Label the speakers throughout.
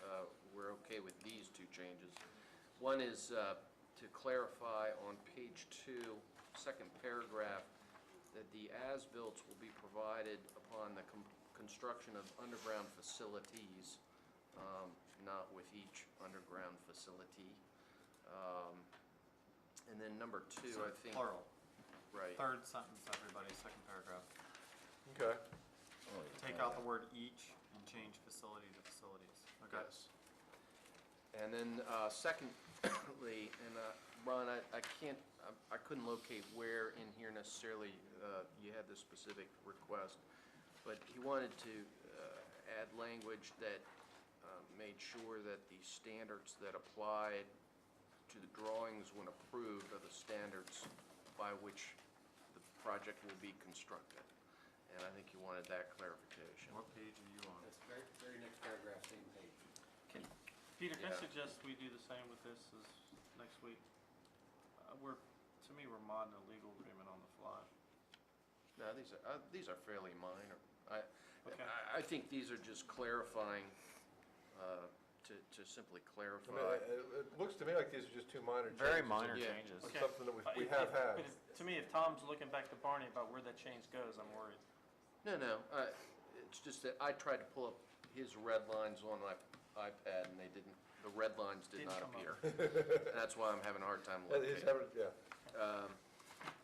Speaker 1: uh, okay with these two changes. One is uh, to clarify on page two, second paragraph, that the as-built will be provided upon the com- construction of underground facilities, um, not with each underground facility. Um, And then number two, I think.
Speaker 2: Plural.
Speaker 1: Right.
Speaker 2: Third sentence, everybody, second paragraph.
Speaker 3: Okay.
Speaker 2: Take out the word each and change facility to facilities. Okay.
Speaker 1: Yes. And then uh, secondly, and uh, Ron, I I can't, I- I couldn't locate where in here necessarily uh, you had this specific request, but he wanted to uh, add language that uh, made sure that the standards that applied to the drawings when approved are the standards by which the project will be constructed. And I think you wanted that clarification.
Speaker 2: What page are you on?
Speaker 4: That's very, very next paragraph, same page.
Speaker 5: Peter, can I
Speaker 1: Yeah.
Speaker 5: suggest we do the same with this as next week? Uh, We're, to me, we're modding a legal agreement on the fly.
Speaker 1: No, these are, uh, these are fairly minor. I,
Speaker 5: Okay.
Speaker 1: I I think these are just clarifying, uh, to, to simply
Speaker 3: I mean, it,
Speaker 1: clarify.
Speaker 3: it- it looks to me like these are just two minor changes.
Speaker 2: Very minor
Speaker 1: Yeah.
Speaker 2: changes.
Speaker 3: Okay. something that we- we have had.
Speaker 5: But Uh, if- To me, if Tom's looking back to Barney about where that change goes, I'm worried.
Speaker 1: No, no, uh, it's just that I tried to pull up his red lines on my iPad and they didn't, the red lines did
Speaker 5: Didn't
Speaker 1: not
Speaker 5: come
Speaker 1: appear.
Speaker 5: up.
Speaker 1: That's why I'm having a hard time
Speaker 3: Yeah, these
Speaker 1: locating.
Speaker 3: haven't- yeah.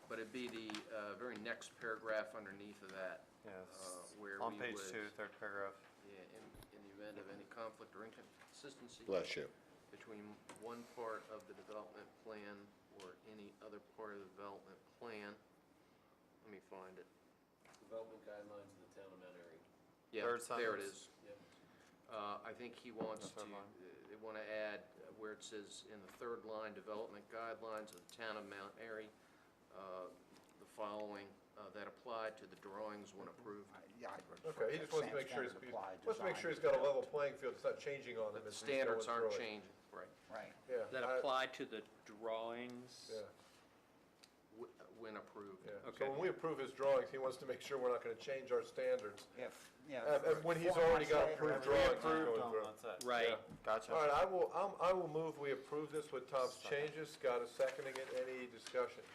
Speaker 1: But it'd be the uh, very next paragraph underneath of that.
Speaker 2: Yes.
Speaker 1: uh, Where we
Speaker 2: On page
Speaker 1: would-
Speaker 2: two, third paragraph.
Speaker 1: Yeah, in, in the event of any conflict or inconsistency.
Speaker 6: Bless you.
Speaker 1: between one part of the development plan or any other part of the development plan. Let me find it.
Speaker 4: Development guidelines in the town of Mount Airy.
Speaker 1: Yeah,
Speaker 2: Third
Speaker 1: there it
Speaker 2: sentence.
Speaker 1: is.
Speaker 4: Yep.
Speaker 1: Uh, I think he wants
Speaker 2: The third
Speaker 1: to,
Speaker 2: line.
Speaker 1: they want to add uh, where it says in the third line, development guidelines of the town of Mount Airy, uh, the following uh, that apply to the drawings when approved.
Speaker 7: Yeah, I'd prefer
Speaker 3: Okay, he just wants
Speaker 7: that
Speaker 3: to
Speaker 7: same
Speaker 3: make sure, he's-
Speaker 7: standard apply,
Speaker 3: wants to make sure he's
Speaker 7: design.
Speaker 3: got a level playing field, it's not changing on them.
Speaker 1: The
Speaker 3: as he's going
Speaker 1: standards aren't
Speaker 3: through it.
Speaker 1: changing, right.
Speaker 7: Right.
Speaker 3: Yeah. I-
Speaker 8: That apply to the drawings?
Speaker 3: Yeah,
Speaker 1: wh- When approved.
Speaker 3: yeah.
Speaker 8: Okay.
Speaker 3: So when we approve his drawings, he wants to make sure we're not gonna change our standards.
Speaker 7: If,
Speaker 3: And-
Speaker 7: yeah.
Speaker 3: and Uh, when he's already got approved
Speaker 2: We
Speaker 3: drawings.
Speaker 2: approved
Speaker 3: going
Speaker 2: on,
Speaker 3: through.
Speaker 2: that's it.
Speaker 8: Right.
Speaker 3: All right,
Speaker 2: Gotcha.
Speaker 3: I will, I'm- I will move we approve this with Tom's changes. Scott is seconding it. Any discussion?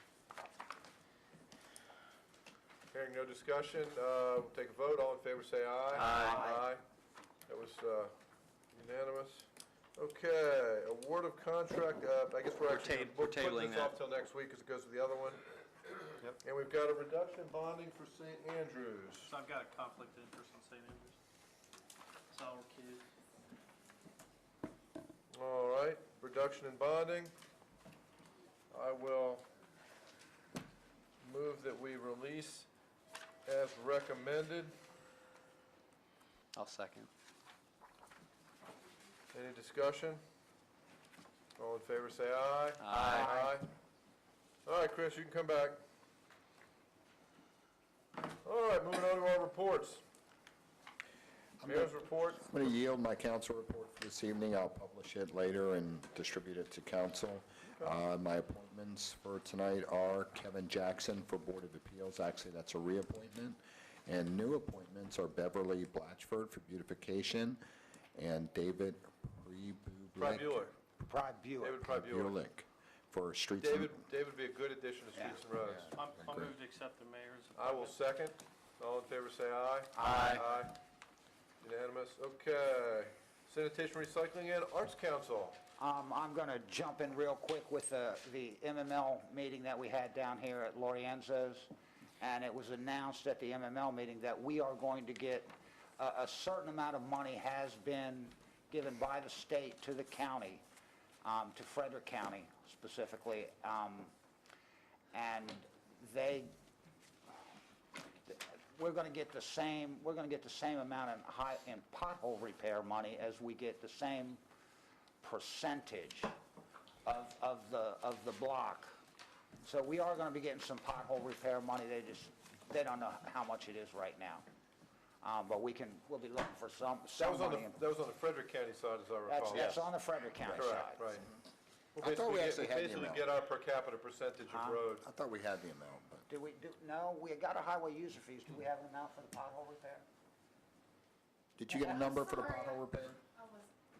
Speaker 3: Hearing no discussion, uh, we'll take a vote. All in favor, say aye.
Speaker 2: Aye.
Speaker 3: Aye. That was uh, unanimous. Okay, award of contract, uh, I guess we're
Speaker 8: We're
Speaker 3: actually,
Speaker 8: ta-
Speaker 3: we're
Speaker 8: we're
Speaker 3: putting
Speaker 8: tabling
Speaker 3: this off
Speaker 8: that.
Speaker 3: till next week because it goes to the other one.
Speaker 2: Yep.
Speaker 3: And we've got a reduction bonding for St. Andrews.
Speaker 5: So I've got a conflict of interest on St. Andrews. So I'll recuse.
Speaker 3: All right, reduction in bonding. I will move that we release as recommended.
Speaker 8: I'll second.
Speaker 3: Any discussion? All in favor, say aye.
Speaker 8: Aye.
Speaker 3: Aye. All right, Chris, you can come back. All right, moving on to our reports. Mayor's report.
Speaker 6: I'm going to yield my council report for this evening. I'll publish it later and distribute it to council. Uh, My appointments for tonight are Kevin Jackson for Board of Appeals. Actually, that's a reappointment. And new appointments are Beverly Blatchford for beautification and David Prebulic.
Speaker 3: Bueller.
Speaker 7: Pride
Speaker 3: David
Speaker 7: Buick.
Speaker 3: Bueller.
Speaker 6: Prebulic for streets. and-
Speaker 3: David, David would be a good addition to Streets and Roads.
Speaker 5: I'm, I'll
Speaker 6: Agree.
Speaker 5: move to accept the mayor's.
Speaker 3: I will second. All in favor, say aye.
Speaker 7: Aye.
Speaker 3: Aye. Unanimous. Okay. Sanitation, Recycling, and Arts Council.
Speaker 7: Um, I'm going to jump in real quick with the, the MML meeting that we had down here at Lorienzo's. And it was announced at the MML meeting that we are going to get, a, a certain amount of money has been given by the state to the county, um, to Frederick County specifically. Um, and they we're going to get the same, we're going to get the same amount in high, in pothole repair money as we get the same percentage of, of the, of the block. So we are going to be getting some pothole repair money, they just, they don't know how much it is right now. Um, but we can, we'll be looking for some,
Speaker 3: That
Speaker 7: some
Speaker 3: was on
Speaker 7: money. in-
Speaker 3: the, that was on the Frederick County side, as I
Speaker 7: That's,
Speaker 3: recall.
Speaker 7: that's on the Frederick County
Speaker 3: Correct,
Speaker 7: side.
Speaker 3: right. We'll
Speaker 6: I thought we
Speaker 3: basically get-
Speaker 6: actually had the
Speaker 3: Basically
Speaker 6: amount.
Speaker 3: get our per capita percentage of
Speaker 7: Huh?
Speaker 3: roads.
Speaker 6: I thought we had the amount, but.
Speaker 7: Do we, do, no, we got a highway user fees, do we have an amount for the pothole repair?
Speaker 6: Did you get a number for the pothole repair?